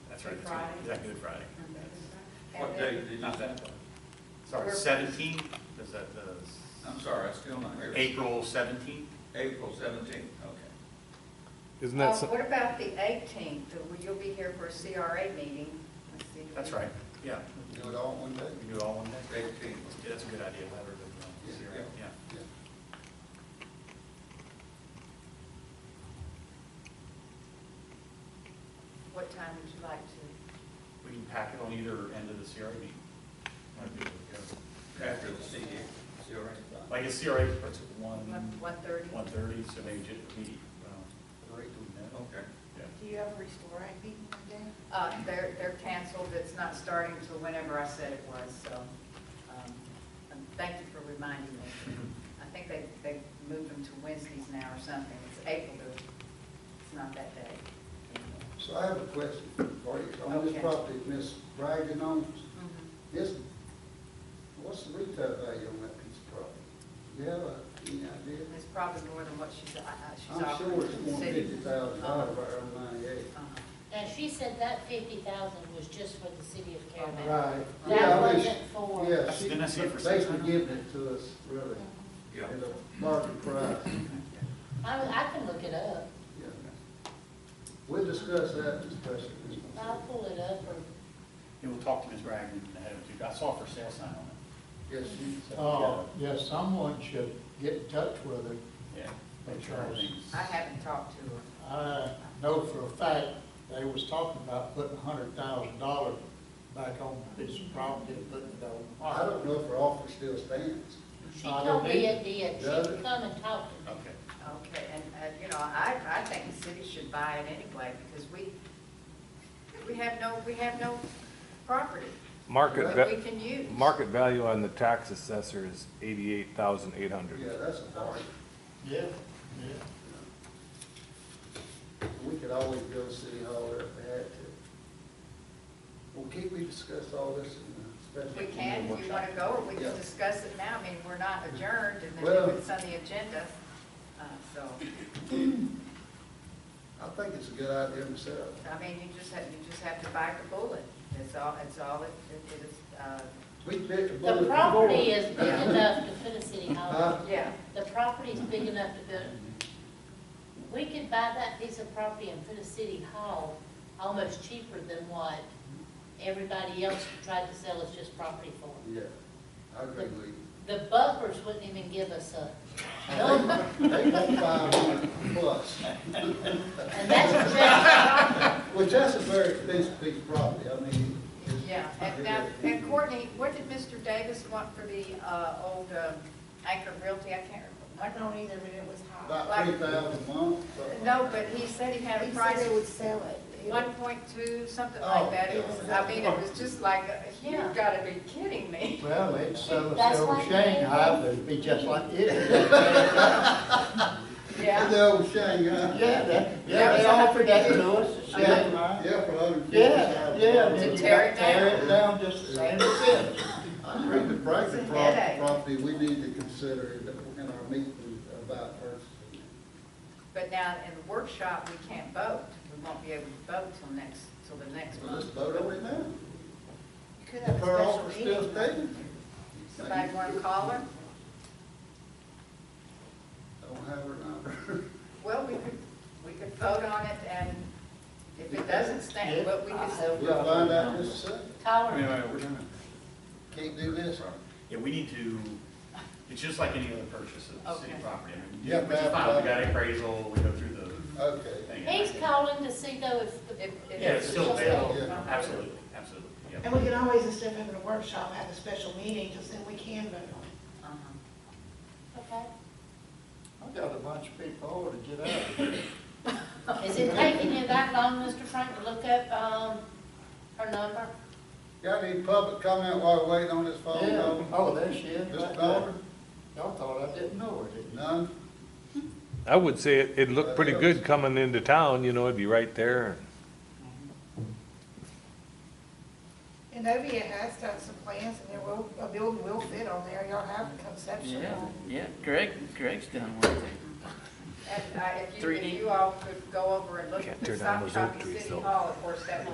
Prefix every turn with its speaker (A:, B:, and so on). A: that's right.
B: Good
A: it's Good-
B: Friday.
A: Is that Good Friday?
C: What day did you,
A: Not that, one. sorry,
B: We're-
A: seventeenth, is that the,
C: I'm sorry, I still not here.
A: April seventeenth?
C: April seventeenth, okay.
D: Isn't
B: Uh,
D: that, some-
B: What about the 18th? You'll be here for a CRA meeting. Let's see if
A: That's
B: we-
A: right, yeah,
C: Do it all one day?
A: we can do it all one day.
C: Eighteenth.
A: Yeah, that's a good idea, have her do it, uh,
C: Yeah,
A: zero,
C: yeah.
A: yeah.
B: What time would you like to?
A: We can pack it on either end of the CRA meeting. Might be able to
C: After the CD, see all right?
A: go. Like, a CRA starts at one,
B: one- 1:30?
A: Um, one thirty, so maybe just immediately, well,
C: Great.
A: no,
C: Okay.
A: yeah.
E: Do you have a restore act meeting that day?
B: Uh, They're, they're canceled. It's not starting till whenever I said it was, so um, and thank you for reminding me. I think they, they moved them to Wednesdays now or something. It's April, to- it's not that day.
F: So I have a question for you. On
B: Okay.
F: this property, Ms. Bragg and owns,
B: Mhm.
F: is, what's the retail value on that piece of property? Do you have a, any idea?
B: It's probably more than what she's, uh, uh, she's
F: I'm
B: offering
F: sure
B: to
F: it's
B: the
F: more than fifty
B: city.
F: thousand dollars right around ninety-eight.
B: Uh-huh.
G: Now, she said that fifty thousand was just for the city of Caravelle.
F: Right.
G: That
F: Yeah, I
G: wasn't
F: wish-
G: for-
F: Yeah, she
A: Didn't I see it for six
F: basically
A: hundred?
F: giving it to us, really,
C: Yeah.
F: at a market price.
G: I, was- I can look it up,
F: Yeah. We'll discuss that discussion.
G: I'll pull it up or,
A: And we'll talk to Ms. Bragg and have her do, I saw for sale sign on
F: Yes, you.
H: Oh, yes, someone should get in touch with her.
A: it, yeah. Make
H: That's
A: sure
H: right.
A: everything's-
B: I haven't talked to her.
H: I know for a fact, they was talking about putting a hundred thousand dollars back on this property, putting it on the
F: I
H: market.
F: don't know if her offer still stands.
G: she
H: I don't
G: told me
H: either.
G: it did, she
F: Does
G: could
F: it?
G: come and talk to me.
A: Okay.
B: Okay, and, uh, you know, I, I think the city should buy it anyway, because we, we have no, we have no property
F: Well,
D: market,
B: that
D: va-
B: we can use.
D: market value on the tax assessor is eighty-eight thousand eight hundred.
F: Yeah, that's a bargain.
H: Yeah, yeah.
F: We could always build a city hall there if we had to. Well, can't we discuss all this in a special?
B: We can, if you want to go, or we can
F: Yeah.
B: discuss it now, I mean, we're not adjourned, and
F: Well-
B: then it's on the agenda, uh, so,
F: I think it's a good idea myself.
B: I mean, you just have, you just have to bite the bullet, that's all, that's all it it is, uh,
F: We bit the bullet.
G: The property
F: before.
G: is big enough to put a city hall,
F: Huh?
B: yeah,
G: the property's big enough to build. We could buy that piece of property and put a city hall almost cheaper than what everybody else tried to sell us just property for.
F: Yeah, I agree with you.
G: The buffers wouldn't even give us a number.
F: They they want five hundred plus,
G: And that's just,
F: which that's a very expensive piece of property, I mean. it's-
B: yeah. And now, and Courtney, what did Mr. Davis want for the uh, old uh, Anchor Realty, I can't
E: I
B: remember.
E: don't either, but it was high.
F: About three thousand a month. something
B: No,
F: like
B: but
F: that.
B: he said he had a
E: He
B: price.
E: said they would sell it. It-
B: One point two, something
F: Oh,
B: like that, it was,
F: yeah.
B: I mean, it was just like, you've gotta be kidding me.
H: Well, it's so,
G: That's
H: so
G: why-
H: Shanghai, but it'd be just like it.
F: And
B: Yeah,
F: the old Shanghai.
H: Yeah, that, yeah, they offered that to us, the Shanghai.
F: Yeah, for a hundred and fifty
H: Yeah,
F: thousand.
H: yeah.
B: To
H: then you
B: tear it
H: tear
B: down.
H: it down just the same as it.
F: I agree with Frank, the
B: It's a
F: prop-
B: headache.
F: property, we need to consider it in our meeting about purchasing.
B: but now in the workshop, we can't vote, we won't be able to vote till next, till the next
F: So let's
B: month.
F: vote on it now.
E: You Could have a
F: If her
E: special
F: offer
E: meeting.
F: still standing.
B: Somebody wanna call her?
F: Don't have her number.
B: Well, we could, we could vote on it, and if it doesn't stand, but we could still
F: We'll
B: vote.
F: find out this second.
A: Wait,
G: tolerance.
A: wait, wait, we're done.
F: Can't do this.
A: Yeah, we need to, it's just like any other purchase of city
B: Okay.
A: property. I mean,
F: Yeah,
A: Which is
F: but-
A: fine, we got appraisal, we go through the
F: Okay.
A: thing.
G: He's calling to see though if the
B: If- if
A: Yeah, it's still available,
F: Yeah.
A: absolutely, absolutely, yeah.
E: And we can always, instead of having a workshop, have a special meeting, because then we can vote on it.
B: Uh-huh.
G: Okay.
H: I got a bunch of people over to get out.
G: Is it taking you that long, Mr. Frank, to look up, um, her number?
F: Got any public comment while we're waiting on this phone
H: Yeah,
F: call?
H: oh, there she is.
F: Mr.
H: right
F: Dollar?
H: there. Y'all thought I didn't know her, didn't you?
F: None?
D: I would say it, it looked pretty good coming into town, you know, it'd be right there.
E: And Novia has done some plans, and there will, a building will fit on there, y'all have the conception.
I: Yeah, yeah, Greg, Greg's done one thing.
B: And, uh, if you, if
I: 3D?
B: you all could go over and look
D: Can't
B: at the
D: tear down
B: stop
D: those
B: shop
D: oak
B: at
D: trees,
B: City
D: though.
B: Hall, of course, that